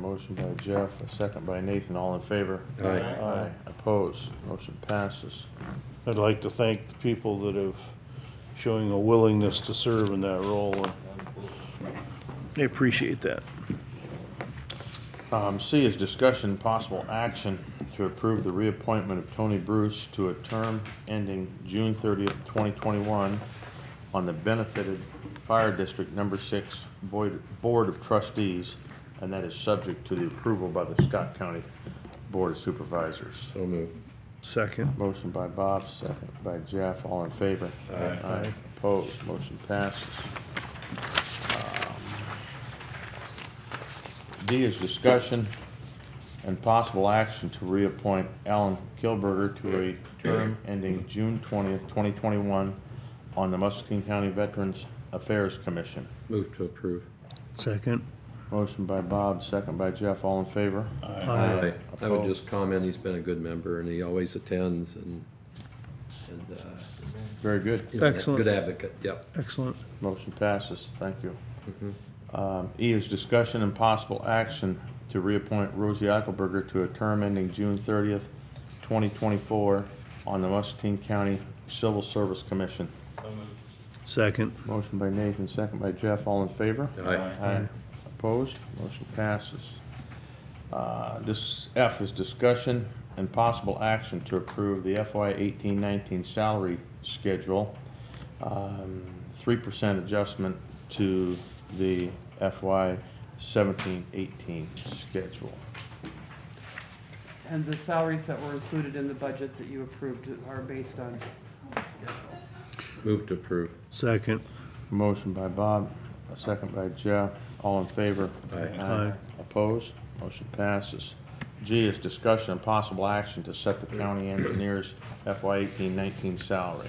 Motion by Jeff, a second by Nathan, all in favor? Aye. Aye. Aye, opposed, motion passes. I'd like to thank the people that have showing a willingness to serve in that role. and I appreciate that. Um, C is discussion, possible action to approve the reappointment of Tony Bruce to a term ending June thirtieth, twenty twenty-one on the benefited Fire District Number Six Boyd, Board of Trustees, and that is subject to the approval by the Scott County Board of Supervisors. So moved. Second. Motion by Bob, second by Jeff, all in favor? Aye. Aye. Opposed, motion passes. Um, D is discussion and possible action to reappoint Alan Kilberger to a term ending June twentieth, twenty twenty-one on the Muscatine County Veterans Affairs Commission. Move to approve. Second. Motion by Bob, second by Jeff, all in favor? Aye. I would Opposed? just comment, he's been a good member, and he always attends, and, and, uh, Very good. you know, Excellent. Good advocate, yep. Excellent. Motion passes, thank you. Um, E is discussion and possible action to reappoint Rosie Eichelberger to a term ending June thirtieth, twenty twenty-four on the Muscatine County Civil Service Commission. Second. Motion by Nathan, second by Jeff, all in favor? Aye. Aye. Opposed? Motion passes. Uh, This F is discussion and possible action to approve the FY eighteen nineteen salary schedule. Um, Three percent adjustment to the FY seventeen eighteen schedule. And the salaries that were included in the budget that you approved are based on Move to approve. Second. Motion by Bob, a second by Jeff. All in favor? Aye. Aye. Opposed? Motion passes. G is discussion and possible action to set the county engineer's FY eighteen nineteen salary.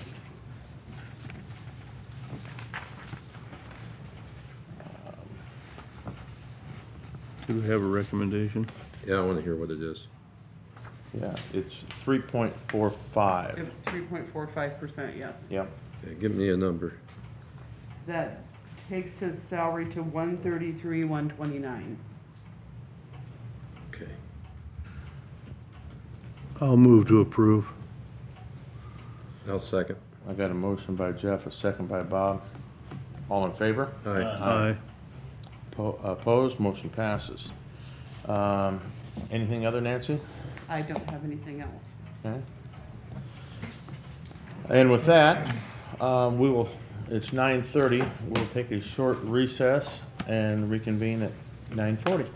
Do we have a recommendation? Yeah, I wanna hear what it is. Yeah, it's three point four five. three point four five percent, yes. Yep. Okay, Give me a number. That takes his salary to one thirty-three, one twenty-nine. Okay. I'll move to approve. I'll second. I got a motion by Jeff, a second by Bob. All in favor? Aye. Aye. Po- Opposed? Motion passes. Um, anything other, Nancy? I don't have anything else. Okay. And with that, um, we will, it's nine thirty, we'll take a short recess and reconvene at nine forty.